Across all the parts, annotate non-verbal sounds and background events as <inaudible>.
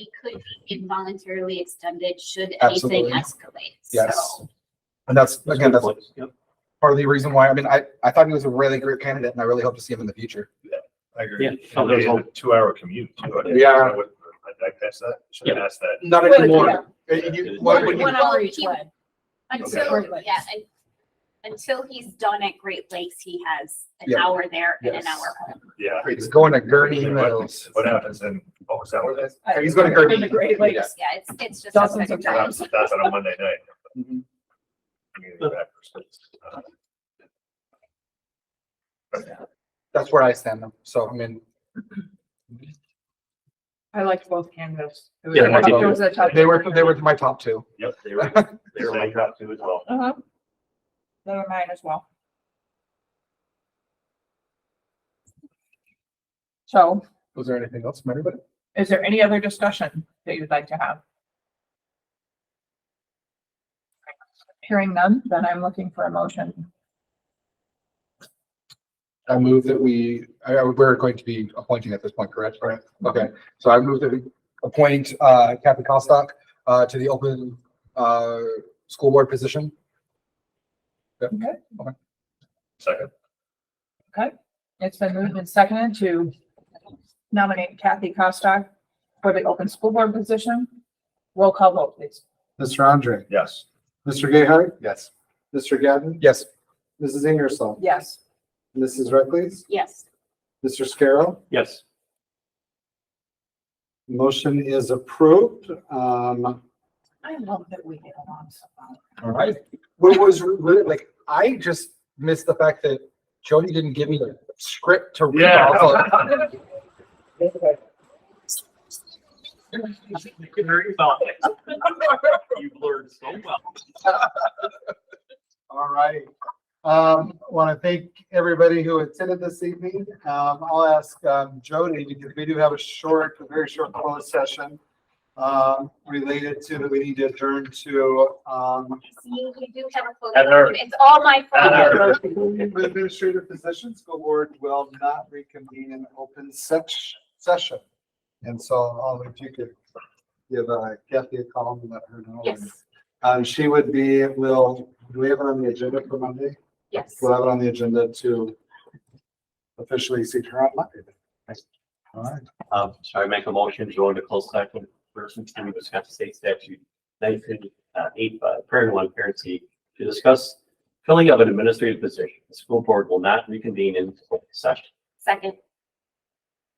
it could be involuntarily extended should anything Absolutely. escalate. Yes. So And that's, again, that's Yep, part of the reason why, I mean, I, I thought he was a really great candidate and I really hope to see him in the future. I Yeah. agree. Oh, And there's there's all- a two-hour commute. too. I think. Yeah. I would- I, I guess that, should have asked that. Not Well, anymore. Uh, you- what would you- One hour each Keep- way. Until, Okay. yeah, and until he's done at Great Lakes, he has an Yeah. hour there and an Yes. hour home. Yeah. He's going to Gurney Mills. What happens in, what was that? one? That's, I- He's gonna hurt in me. the Great Lakes. Yeah, it's, it's just. a Dozens quick of drive. that's on a Monday night. Mhm. Community breakfast. Uh, That's where I stand. So, I mean, I liked both candidates. It was Yeah, a I did tough- too. it was a tough they were, decision. they were my top two. Yep, they were, they were like that too as well. Uh-huh. They were mine as well. So Was there anything else from anybody? is there any other discussion that you'd like to have? Hearing none, then I'm looking for a motion. I move that we, I, I- we're going to be appointing at this point, correct? Right. Okay, so I move that we appoint, uh, Kathy Kostock, uh, to the open, uh, school board position. Second, It's been moved and seconded to nominate Kathy Kostock for the open school board position. Roll call vote, please. Mr. Andre, yes. Mr. Gayheart, Yes. Mr. Gavin, Yes. Mrs. Ingersoll, Yes. Mrs. Reckles, Yes. Mr. Scarrow. yes. Motion is approved. Um, I love that we get along so well. All right. What was really, like, I just missed the fact that Jody didn't give me the script to read. Yeah. I was <laughs> like, You blurred so well. all right. Um, want to thank everybody who attended this evening. Um, I'll ask, um, Jody, because we do have a short, a very short closed session um, related to that we need to adjourn to, um, See, we do have a photo. Heather. It's all my fault. Heather. administrative positions, school board will not reconvene in open sech- session. And so, um, if you could give uh, Kathy a call and let her know. Yes, Um, she would be, will, do we have it on the agenda for Monday? yes. We'll have it on the agenda to officially seat her on Monday. All right. Um, so I make a motion, to go into closed session, person to discuss state statute nineteen, uh, eight, uh, parent one, parent C, to discuss filling of an administrative position. The school board will not reconvene in open session. Second.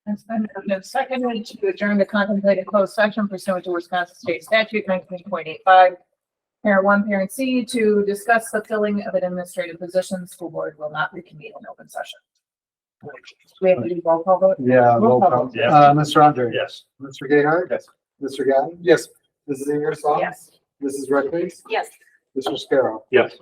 It's been moved and seconded to adjourn the contemplated closed session pursuant to Wisconsin State Statute nineteen point eight five. Parent one, parent C, to discuss the filling of an administrative position. School board will not reconvene in open session. Do We have to do roll call vote. Yeah. Roll roll call. call. Yeah. Uh, Mr. Andre. Yes. Mr. Gayheart. Yes. Mr. Gavin. Yes. Mrs. Ingersoll. Yes. Mrs. Reddick. Yes. Mr. Scarrow. Yes.